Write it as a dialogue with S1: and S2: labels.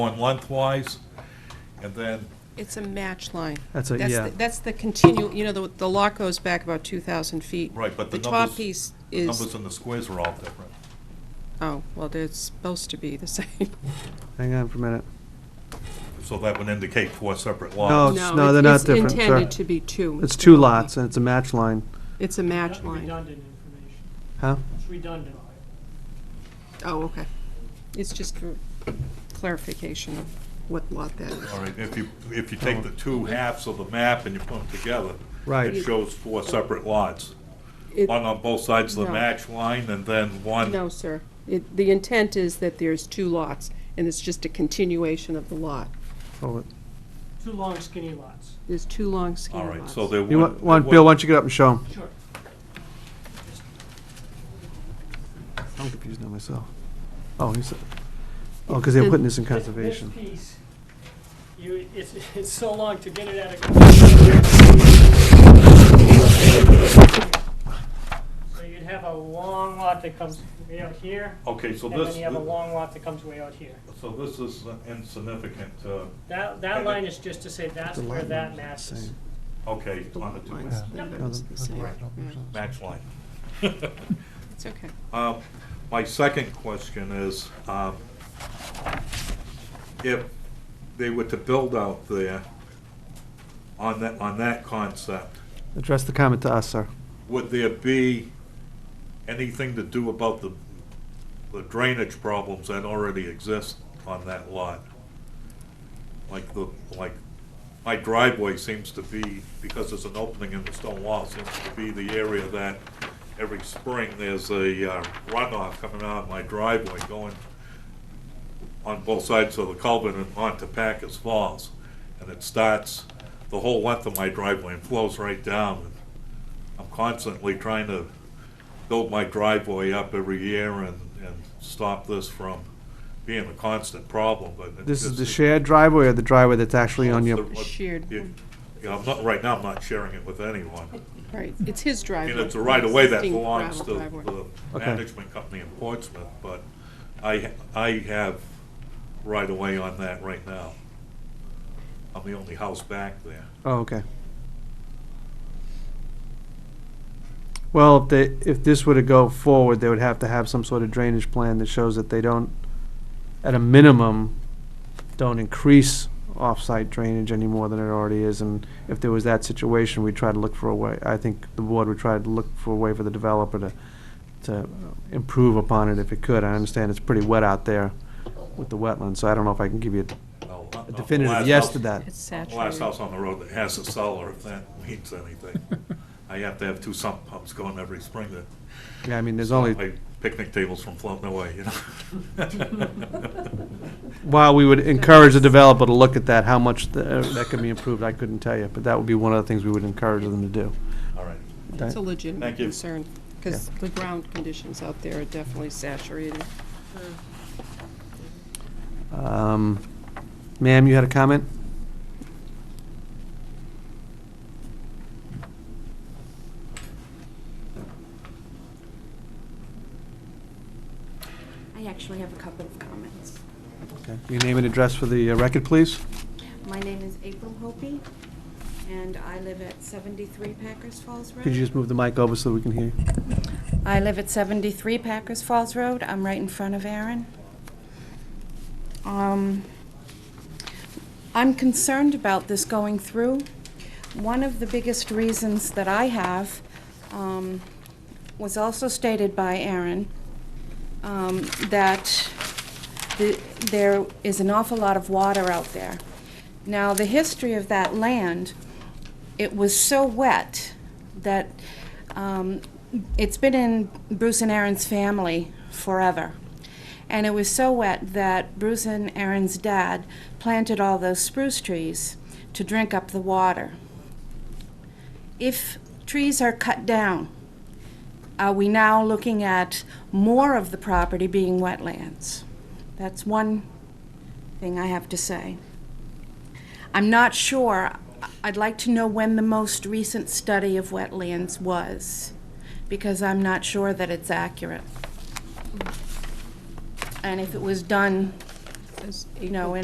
S1: going lengthwise, and then,
S2: It's a match line.
S3: That's a- yeah.
S2: the- That's the continue, you know, the the lot goes back about 2,000 feet.
S1: right, but the
S2: The top
S1: numbers,
S2: piece
S1: the numbers
S2: is,
S1: and the squares are all different.
S2: oh, well, they're supposed to be the same.
S3: Hang on for a minute.
S1: So that would indicate four separate
S3: No,
S1: lots.
S3: it's- Oh, no, they're not different,
S2: It's
S3: sorry.
S2: intended to be two.
S3: It's two lots, and it's a match line.
S2: It's a match line.
S4: Redundant information.
S3: Huh?
S4: It's redundant.
S2: Oh, okay. It's just for clarification of what lot that is.
S1: All right, if you, if you take the two halves of the map and you put them together,
S3: Right.
S1: it shows four separate lots.
S2: It-
S1: One on both sides of the
S2: No.
S1: match line, and then one.
S2: No, sir. It- The intent is that there's two lots, and it's just a continuation of the lot.
S3: Hold it.
S4: Two long skinny lots.
S2: There's two long
S1: All
S2: skinny lots.
S1: right, so there would.
S3: You want, want- Bill, why don't you get up and show him?
S4: Sure.
S3: I'm confused now myself. Oh, he's, oh, because they're putting this in
S4: This-
S3: conservation.
S4: This piece, you, it's, it's so long to get it out of. So you'd have a long lot that comes way out here,
S1: Okay, so
S4: and then
S1: this,
S4: you have a long lot that comes way out here.
S1: so this is insignificant, uh,
S4: That, that line is just to say that's where that matches.
S1: okay, on the
S2: Lot
S1: two
S2: lines, they're
S3: No,
S2: the
S3: the-
S2: same.
S3: okay.
S2: Right.
S1: match line.
S2: It's okay.
S1: Um, My second question is, um, if they were to build out there on that, on that concept,
S3: Address the comment to us, sir.
S1: would there be anything to do about the the drainage problems that already exist on that lot? Like the, like, my driveway seems to be, because there's an opening in the stone wall, seems to be the area that every spring there's a uh, runoff coming out of my driveway going on both sides of the culvert and onto Packers Falls. And it starts the whole length of my driveway and flows right down. I'm constantly trying to build my driveway up every year and, and stop this from being a constant problem, but. it
S3: This is
S1: just-
S3: the shared driveway or the driveway that's actually on
S1: It's
S3: your,
S1: the-
S2: Shared.
S1: Yeah, yeah, I'm not, right now, I'm not sharing it with anyone.
S2: Right, it's his
S1: I
S2: driveway.
S1: mean, it's a right of way that
S2: Existing
S1: belongs to
S2: gravel driveway.
S1: the
S3: Okay.
S1: management company in Portsmouth, but I, I have right of way on that right now. I'm the only house back there.
S3: oh, okay. Well, if they, if this were to go forward, they would have to have some sort of drainage plan that shows that they don't, at a minimum, don't increase off-site drainage any more than it already is, and if there was that situation, we'd try to look for a way, I think the board would try to look for a way for the developer to, to improve upon it if it could. I understand it's pretty wet out there with the wetlands, so I don't know if I can give you
S1: Well, I'm- I'm the
S3: a definitive
S1: last
S3: yes
S1: house-
S3: to that.
S2: It's
S1: I'm the Last
S2: saturated.
S1: house on the road that has a cellar, if that means anything. I have to have two sump pumps going every spring to
S3: Yeah, I mean, there's
S1: stop
S3: only,
S1: my picnic tables from floating away, you know?
S3: while we would encourage the developer to look at that, how much the- uh, that can be improved, I couldn't tell you, but that would be one of the things we would encourage them to do.
S1: All right.
S2: It's a legitimate
S1: Thank you.
S2: concern, because the ground conditions out there are definitely saturated.
S3: Um, Ma'am, you had a comment?
S5: I actually have a couple of comments.
S3: Okay. Your name and address for the uh, record, please?
S5: My name is April Hopi, and I live at 73 Packers Falls Road.
S3: Could you just move the mic over so we can hear you?
S5: I live at 73 Packers Falls Road. I'm right in front of Aaron. Um, I'm concerned about this going through. One of the biggest reasons that I have um, was also stated by Aaron, um, that the- there is an awful lot of water out there. Now, the history of that land it was so wet that um, it's been in Bruce and Aaron's family forever. And it was so wet that Bruce and Aaron's dad planted all those spruce trees to drink up the water. If trees are cut down, are we now looking at more of the property being wetlands? That's one thing I have to say. I'm not sure. I'd like to know when the most recent study of wetlands was, because I'm not sure that it's accurate. And if it was done,
S2: Says
S5: you know, in